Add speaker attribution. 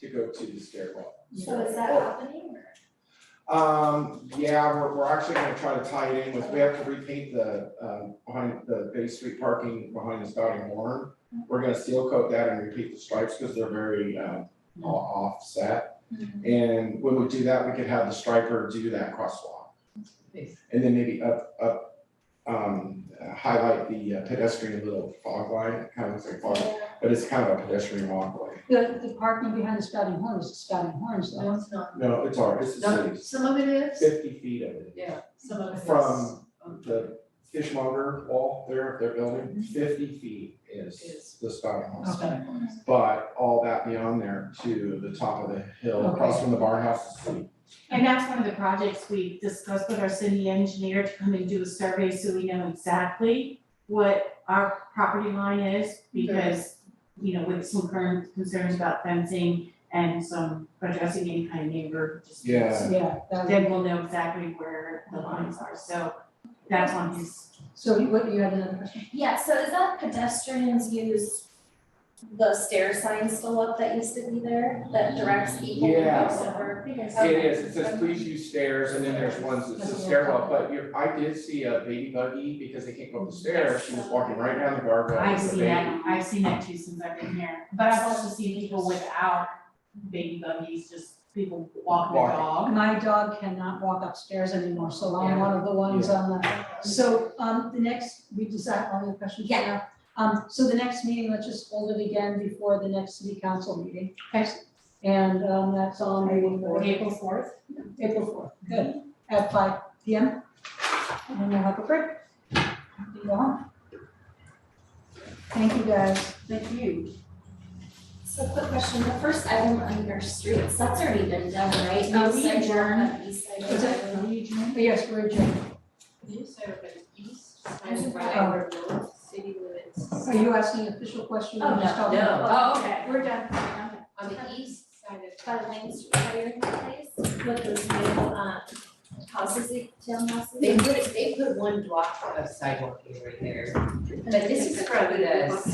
Speaker 1: to go to the stairwell.
Speaker 2: So is that
Speaker 1: Oh.
Speaker 2: happening or?
Speaker 1: Um, yeah, we're, we're actually gonna try to tie it in with, we have to repaint the, um, behind the Bay Street parking behind the Spouting Horn. We're gonna seal coat that and repeat the stripes, cause they're very, um, o- offset.
Speaker 2: Mm-hmm.
Speaker 1: And when we do that, we could have the striper do that crosswalk.
Speaker 3: Nice.
Speaker 1: And then maybe up, up, um, highlight the uh, pedestrian little fog line, kind of looks like fog,
Speaker 2: Yeah.
Speaker 1: but it's kind of a pedestrian walkway.
Speaker 4: The, the parking behind the spouting horn is the spouting horns
Speaker 3: No,
Speaker 4: though.
Speaker 3: it's not.
Speaker 1: No, it's ours, it's the
Speaker 3: No,
Speaker 1: city's,
Speaker 3: some of it is,
Speaker 1: fifty feet of it.
Speaker 3: yeah, some of it is.
Speaker 1: From
Speaker 3: um,
Speaker 1: the fishmonger wall there, their building, fifty feet Mhm. is
Speaker 3: Is.
Speaker 1: the spouting hose.
Speaker 4: Okay.
Speaker 1: But all that beyond there to the top of the hill,
Speaker 4: Okay.
Speaker 1: across from the barn house, is the-
Speaker 5: And that's one of the projects we discussed with our city engineer to come and do a survey so we know exactly what our property line is because, you know, with some current concerns about fencing and some addressing any kind of neighbor disputes.
Speaker 1: Yeah.
Speaker 4: Yeah, that would-
Speaker 5: Then we'll know exactly where the lines are, so that's on his,
Speaker 4: so you- what, you had another question?
Speaker 2: Yeah, so is that pedestrians use the stair sign still up that used to be there that directs people to
Speaker 1: Yeah.
Speaker 2: go over?
Speaker 1: It is, it says please use stairs and then there's ones that says stairwell, but you're, I did see a baby buggy because they can't go up the stairs, she was walking right down the guardrail
Speaker 5: I've
Speaker 1: with a
Speaker 5: seen
Speaker 1: baby.
Speaker 5: that, I've seen that too since I've been here, but I've also seen people without baby buggies, just people walking their
Speaker 1: Walking.
Speaker 5: dog.
Speaker 4: My dog cannot walk upstairs anymore, so I'm one of the ones
Speaker 1: Yeah.
Speaker 4: on the, so, um, the next, we decide all your questions for now. Um, so the next meeting, let's just hold it again before the next city council meeting.
Speaker 5: Okay.
Speaker 4: And, um, that's on April fourth.
Speaker 5: April fourth.
Speaker 4: April fourth, good, at five P M. And we'll have a break. Be gone. Thank you guys.
Speaker 5: Thank you.
Speaker 2: So quick question, the first item under streets, that's already been done, right?
Speaker 5: No,
Speaker 2: East
Speaker 5: we
Speaker 2: side,
Speaker 5: adjourned.
Speaker 2: uh, east side,
Speaker 4: Is
Speaker 2: I
Speaker 4: it,
Speaker 2: don't know.
Speaker 4: yes, we're adjourned.
Speaker 3: east
Speaker 2: and right
Speaker 3: city limits.
Speaker 4: Are you asking an official question
Speaker 2: Oh,
Speaker 4: or just talking?
Speaker 3: no.
Speaker 2: Oh, okay, we're done.
Speaker 3: On the east side of.
Speaker 2: By Lane Street, by your place, with those new, uh, houses, they- townhouses.
Speaker 3: They put, they put one block of sidewalk in right there, but this is from the